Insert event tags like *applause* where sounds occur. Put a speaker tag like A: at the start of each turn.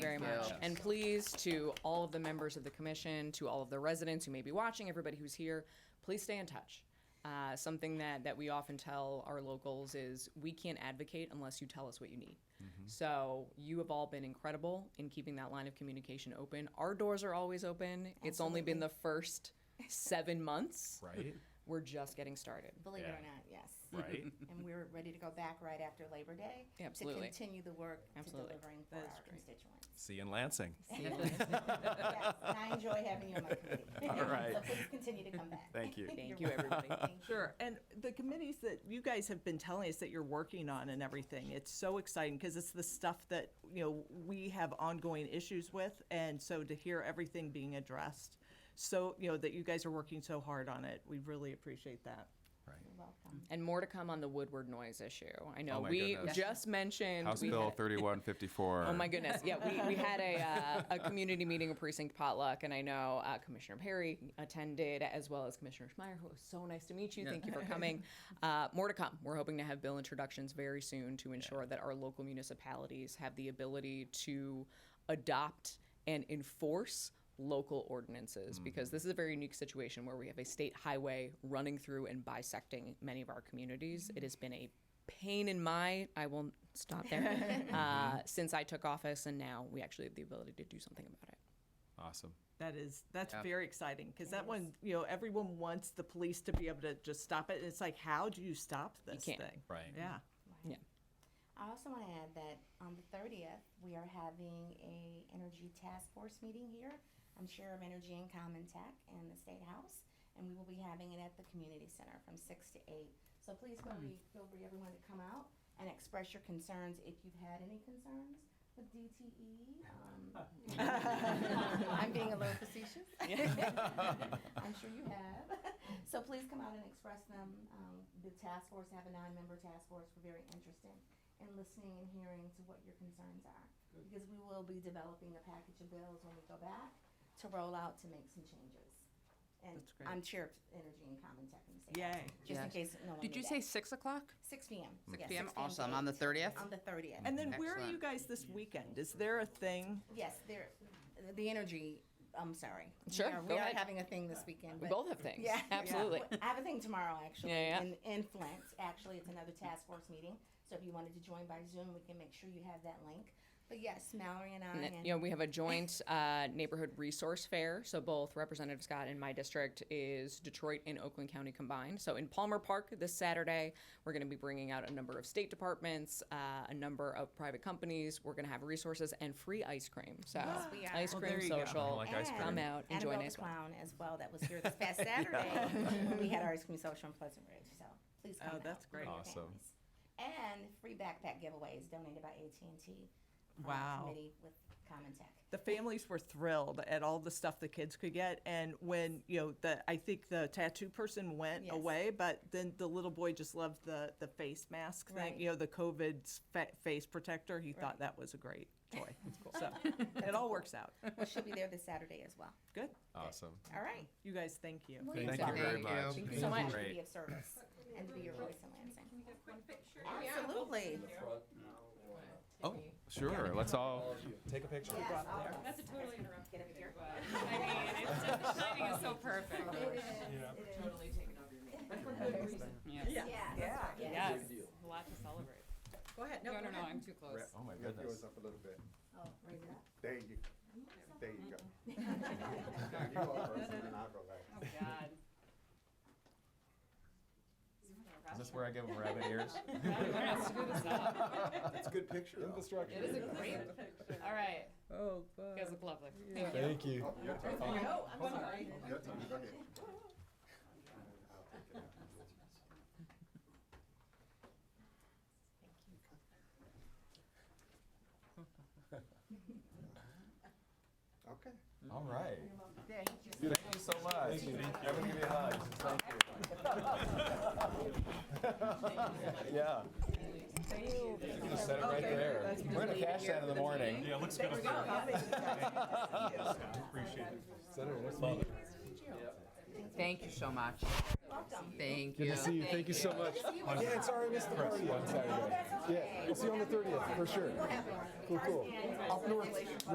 A: And please, to all of the members of the commission, to all of the residents who may be watching, everybody who's here, please stay in touch. Uh, something that, that we often tell our locals is we can't advocate unless you tell us what you need.
B: Mm-hmm.
A: So you have all been incredible in keeping that line of communication open. Our doors are always open. It's only been the first seven months.
B: *laughs*
A: *laughs*
B: Right?
A: We're just getting started.
C: Believe it
B: Yeah.
C: or not,
B: *laughs*
C: yes.
B: Right?
C: And we're ready to go back right after Labor Day.
A: Yeah, absolutely.
C: To continue the work to
A: Absolutely.
C: delivering for
D: That's
C: our
D: great.
C: constituents.
B: See you in Lansing.
C: Yes, and I enjoy having you on
B: *laughs*
C: my committee.
B: All right.
C: *laughs* So please continue to come back.
B: Thank you.
C: You're
A: Thank you,
C: welcome.
A: everybody.
C: Thank you.
D: Sure. And the committees that you guys have been telling us that you're working on and everything, it's so exciting because it's the stuff that, you know, we have ongoing issues with. And so to hear everything being addressed, so, you know, that you guys are working so hard on it, we really appreciate that.
C: You're welcome.
A: And more to come on the Woodward noise issue. I know
B: Oh my
A: we
B: goodness.
A: just mentioned
B: House
A: we
B: Bill
A: had-
B: 3154.
A: Oh my goodness! Yeah, we, we had a uh, a community meeting, a precinct potluck, and I know uh, Commissioner Perry attended as well as Commissioner Schmeier, who was so nice to meet you. Thank you for coming. Uh, more to come. We're hoping to have bill introductions very soon to ensure that our local municipalities have the ability to adopt and enforce local ordinances because this is a very unique situation where we have a state highway running through and bisecting many of our communities. It has been a pain in my I will stop
C: *laughs*
A: there uh, since I took office and now we actually have the ability to do something about it.
B: Awesome.
D: That is, that's very exciting because that one, you know, everyone wants the police to be able to just stop it. And it's like, how do you stop this
A: can't.
D: thing?
B: Right.
D: Yeah.
A: Yeah.
C: I also want to add that on the thirtieth, we are having a energy task force meeting here. I'm chair of Energy and Common Tech in the State House, and we will be having it at the community center from six to eight. So please feel free, feel free everyone to come out and express your concerns if you've had any concerns with DTE. um, *laughs* I'm being a little facetious. *laughs*
B: *laughs*
C: I'm sure you have. *laughs* So please come out and express them. Um, the task force, have a nine-member task force, we're very interested in listening and hearing to what your concerns are. Because we will be developing a package of bills when we go back to roll out to make some changes. And
D: That's great.
C: I'm chair of Energy and Common Tech in the state.
D: Yay.
C: Just in
E: Yes.
C: case no one
E: Did you
C: knew
E: say
C: that.
E: six o'clock?
C: Six P M.
E: 6 p.m. Awesome. On the 30th?
C: On the thirtieth.
D: And then where are you
E: Excellent.
D: guys this weekend? Is there a thing?
C: Yes, there, the energy, I'm sorry. We
A: Sure,
C: are-
A: go
C: We are
A: ahead.
C: having a thing this weekend.
A: We
C: but-
A: both have things.
C: Yeah.
A: *laughs* Absolutely.
C: I have a thing tomorrow, actually.
A: Yeah, yeah.
C: In, in Flint, actually, it's another task force meeting. So if you wanted to join by Zoom, we can make sure you have that link. But yes, Mallory and I
A: And
C: and
A: you know, we have a joint uh, neighborhood resource fair. So both Representative Scott and my district is Detroit and Oakland County combined. So in Palmer Park this Saturday, we're going to be bringing out a number of state departments, uh, a number of private companies. We're going to have resources and free ice cream. So
C: we are.
A: ice
D: Well,
A: cream
D: there you go.
A: social.
B: like ice
C: and
B: cream.
A: Come out and
C: Annabelle
A: join
C: the
A: us.
C: Clown as well that was here
A: *laughs*
C: this past Saturday. when we had our ice cream social in Pleasant Ridge. So please come
D: Oh,
C: out
D: that's
C: with your
D: great.
B: Awesome.
C: families. And free backpack giveaways donated by AT&T. from our
D: Wow.
C: um, Committee with Common Tech.
D: the families were thrilled at all the stuff the kids could get and when you know the i think the tattoo person went
C: Yes.
D: away but then the little boy just loved the the face mask
C: Right.
D: thing you know the covid s- fa- face protector he thought
C: Right.
D: that was a great toy
C: *laughs*
D: so it all works out
C: Well, she'll be there this Saturday as well.
D: good
B: Awesome.
C: All right.
D: you guys thank you
C: Well,
B: Thank you
C: welcome.
B: very
E: Thank
B: much.
E: you.
C: Thank you so much for
B: Great.
C: being of service and to be your voice in Lansing. Absolutely.
B: Oh, sure. Let's all take a picture.
F: That's a totally interrupted video, but I mean, it's just, the timing is so perfect. Totally taken over your meeting. But for good reason.
D: yeah
C: Yeah.
F: Yes, a lot to celebrate.
D: go ahead
F: No, no, no, I'm too close.
B: Oh my
G: Lift
B: goodness.
G: yours up a little bit.
C: Oh, raise it *laughs* up.
G: There you, there you go. *laughs* You go first and then I'll go
F: Oh,
G: last.
F: God. *laughs*
B: Is this where I give them rabbit ears?
F: We're gonna screw this up.
G: It's a good picture.
B: Infrastructure.
F: It is a great picture. All right,
D: oh
F: you
D: God.
F: guys look lovely. Thank you.
B: *laughs* Thank you.
G: Oh, your turn.
F: No, I'm sorry.
G: Your turn, go ahead. I'll take it out. *laughs* Okay.
B: All right.
C: There, he just-
B: Thank you so much. Thank you. Everyone give me a hug. Thank *laughs* you. Yeah. We're gonna set it right there. We're gonna cash that in the morning. Yeah, looks good.
F: *laughs*
B: Set it, what's the-
E: Thank you so much.
C: Welcome.
E: Thank you. Good to see you. Thank you so much.
B: Yeah, sorry I missed the party on Saturday.
C: That's okay.
B: We'll see you on the 30th, for sure.
C: We'll have more.
B: Cool, cool.
C: First and-
B: Up north.